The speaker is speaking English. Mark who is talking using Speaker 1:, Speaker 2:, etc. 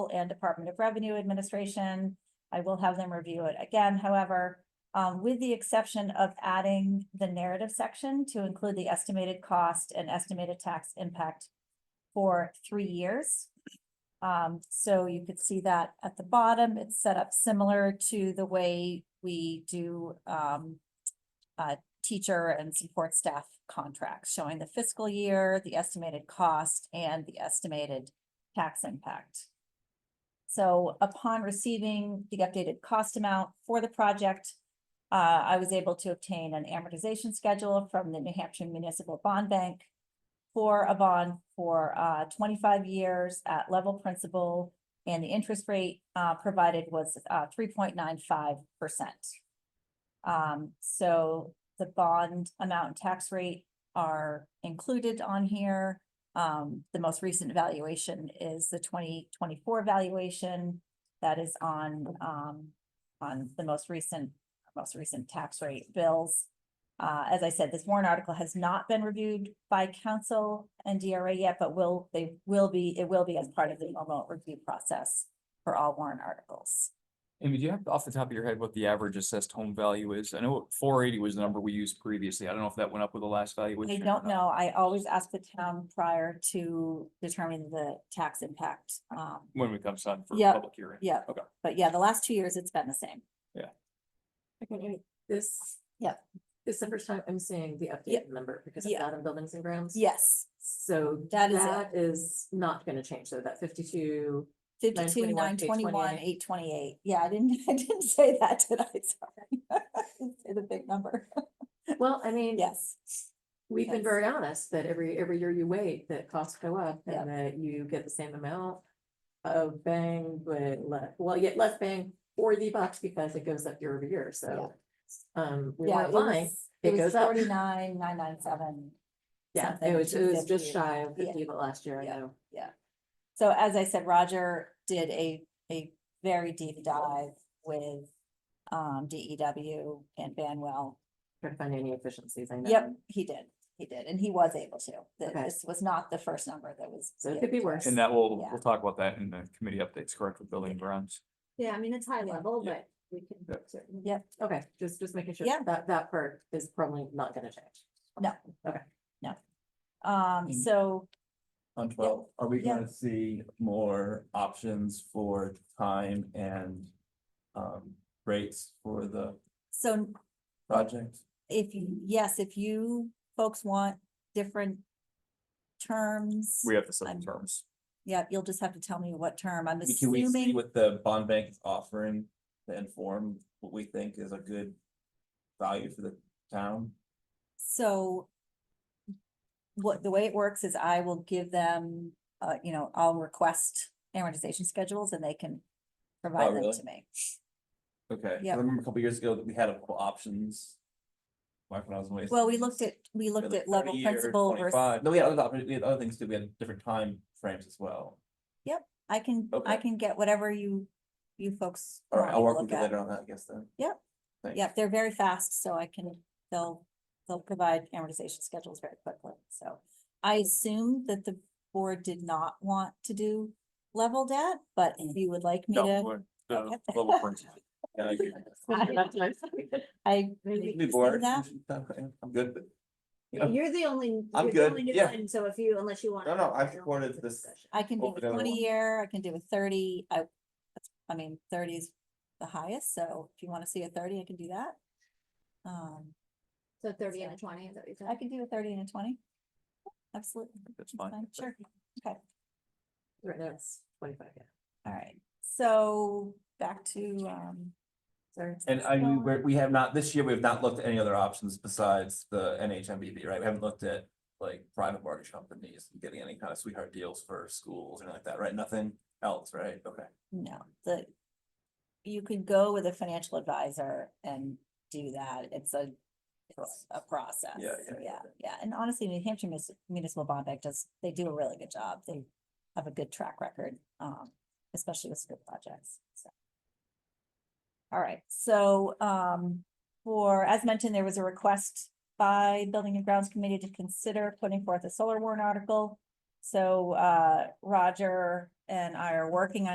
Speaker 1: and Department of Revenue Administration. I will have them review it again, however, um, with the exception of adding the narrative section to include the estimated cost and estimated tax impact for three years. Um, so you could see that at the bottom, it's set up similar to the way we do, um, uh, teacher and support staff contracts, showing the fiscal year, the estimated cost, and the estimated tax impact. So upon receiving the updated cost amount for the project, uh, I was able to obtain an amortization schedule from the New Hampshire Municipal Bond Bank for a bond for, uh, twenty-five years at level principal, and the interest rate, uh, provided was, uh, three point nine five percent. Um, so the bond amount and tax rate are included on here. Um, the most recent valuation is the twenty twenty-four valuation that is on, um, on the most recent, most recent tax rate bills. Uh, as I said, this warrant article has not been reviewed by council and DRA yet, but will, they will be, it will be as part of the normal review process for all warrant articles.
Speaker 2: Amy, do you have off the top of your head what the average assessed home value is? I know four eighty was the number we used previously. I don't know if that went up with the last
Speaker 1: I
Speaker 2: valuation. or
Speaker 1: don't
Speaker 2: not.
Speaker 1: know. I always ask the town prior to determining the tax impact. Um,
Speaker 2: When it comes on for
Speaker 1: Yeah,
Speaker 2: public hearing.
Speaker 1: yeah.
Speaker 2: Okay.
Speaker 1: but yeah, the last two years, it's been the same.
Speaker 3: Okay, wait, this.
Speaker 1: Yep.
Speaker 3: This is the first time I'm seeing the
Speaker 1: Yep.
Speaker 3: updated number because it's
Speaker 1: Yeah.
Speaker 3: out in buildings and grounds.
Speaker 1: Yes,
Speaker 3: So
Speaker 1: That is it.
Speaker 3: that is not gonna change, so that fifty-two,
Speaker 1: fifty-two, nine
Speaker 3: 921,
Speaker 1: twenty-one, eight twenty-eight. Yeah, I didn't, I didn't say that, did I? Sorry. I didn't Say the big number.
Speaker 3: well, I mean,
Speaker 1: Yes,
Speaker 3: we've been
Speaker 1: yes.
Speaker 3: very honest that every, every year you wait, that costs go up
Speaker 1: Yeah.
Speaker 3: and that you get the same amount. Of bang, but less, well, yet less bang for the bucks because it goes up year over year, so. Um, we
Speaker 1: yeah.
Speaker 3: weren't lying, it goes up,
Speaker 1: Forty-nine, nine nine seven.
Speaker 3: yeah,
Speaker 1: something
Speaker 3: it was, it was
Speaker 1: 250.
Speaker 3: just shy of
Speaker 1: Yeah.
Speaker 3: fifty, but last year, I
Speaker 1: Yeah.
Speaker 3: know.
Speaker 1: So as I said, Roger did a, a very deep dive with, um, DEW and Banwell
Speaker 3: Trying to find any efficiencies, I know.
Speaker 1: Yep, he did, he did, and he was able to. Th-
Speaker 3: Okay.
Speaker 1: This was not the first number that was.
Speaker 3: So it
Speaker 1: given
Speaker 3: could be
Speaker 1: to
Speaker 3: worse.
Speaker 1: us.
Speaker 2: And that will,
Speaker 1: Yeah.
Speaker 2: we'll talk about that in the committee updates, correct, with building and grounds.
Speaker 4: Yeah, I mean, it's high
Speaker 3: Yeah.
Speaker 4: level,
Speaker 2: Yeah.
Speaker 4: but we can
Speaker 2: Yep.
Speaker 4: certainly.
Speaker 1: Yep,
Speaker 3: Okay, just, just making sure
Speaker 1: Yeah.
Speaker 3: that, that part is probably not gonna change.
Speaker 1: um,
Speaker 5: Mm.
Speaker 1: so,
Speaker 5: On twelve, are we
Speaker 1: Yeah.
Speaker 5: gonna see more options for time and um rates for the
Speaker 1: so
Speaker 5: project?
Speaker 1: if, you yes, if you folks want different terms,
Speaker 2: We have the seven
Speaker 1: I'm-
Speaker 2: terms.
Speaker 1: yeah, you'll just have to tell me what term. I'm
Speaker 5: Can we see
Speaker 1: assuming,
Speaker 5: what the bond bank is offering to inform what we think is a good value for the town?
Speaker 1: so what, the way it works is I will give them, uh, you know, I'll request amortization schedules and they can provide them
Speaker 5: Oh, really?
Speaker 1: to me.
Speaker 5: Okay, 'cause
Speaker 1: Yeah.
Speaker 5: I remember a couple years ago that we had a couple options. Back when I was in waste.
Speaker 1: Well, we looked at, we
Speaker 5: We had
Speaker 1: looked
Speaker 5: like
Speaker 1: at level
Speaker 5: 30 or
Speaker 1: principal versus
Speaker 5: 25. No, we had other, options- we had other things too, we had different time frames as well.
Speaker 1: I can, I
Speaker 5: Okay.
Speaker 1: can get whatever you, you folks.
Speaker 5: All
Speaker 1: want
Speaker 5: right,
Speaker 1: me
Speaker 5: I'll
Speaker 1: to
Speaker 5: work with
Speaker 1: look
Speaker 5: you
Speaker 1: at.
Speaker 5: later on that, I guess then.
Speaker 1: Yep.
Speaker 5: Thanks.
Speaker 1: Yeah, they're very fast, so I can, they'll, they'll provide amortization schedules very quickly, so. I assume that the board did not want to do level debt, but if you would like me
Speaker 2: No,
Speaker 1: to,
Speaker 2: we're- the
Speaker 1: Okay.
Speaker 2: level principle.
Speaker 5: Yeah, I agree.
Speaker 1: I.
Speaker 4: Maybe
Speaker 5: Be
Speaker 1: rescind
Speaker 5: bored.
Speaker 1: that.
Speaker 5: I'm good, but. you know,
Speaker 4: You're the only. you're
Speaker 5: I'm
Speaker 4: the
Speaker 5: good,
Speaker 4: only new
Speaker 5: yeah.
Speaker 4: one, So if you, unless you want.
Speaker 5: No, no, I supported this.
Speaker 1: I can do
Speaker 5: Over
Speaker 1: a
Speaker 5: the other
Speaker 1: twenty
Speaker 5: one.
Speaker 1: year, I can do a thirty, I, that's- I mean, thirty is the highest, so if you wanna see a thirty, I can do that. Um,
Speaker 4: So thirty and a twenty, is that what you said?
Speaker 1: I can do a thirty and a twenty. Absolutely. that's
Speaker 2: That's fine.
Speaker 1: fine, Sure.
Speaker 3: Right now it's twenty-five, yeah.
Speaker 1: All right, so back to, um.
Speaker 3: Sorry.
Speaker 5: And I mean, we're, we have not, this year, we have not looked at any other options besides the NHMBB, right? We haven't looked at like private mortgage companies and getting any kind of sweetheart deals for schools or anything like that, right? Nothing else, right? Okay.
Speaker 1: No, the, you could go with a financial advisor and do that. It's a, it's a process.
Speaker 5: Yeah, yeah, yeah,
Speaker 1: Yeah, yeah. And honestly, New Hampshire Munis- Municipal Bond Bank does, they do a really good job. They have a good track record, um, especially with school projects, so. All right, so, um, for, as mentioned, there was a request by Building and Grounds Committee to consider putting forth a solar warrant article. So, uh, Roger and I are working on.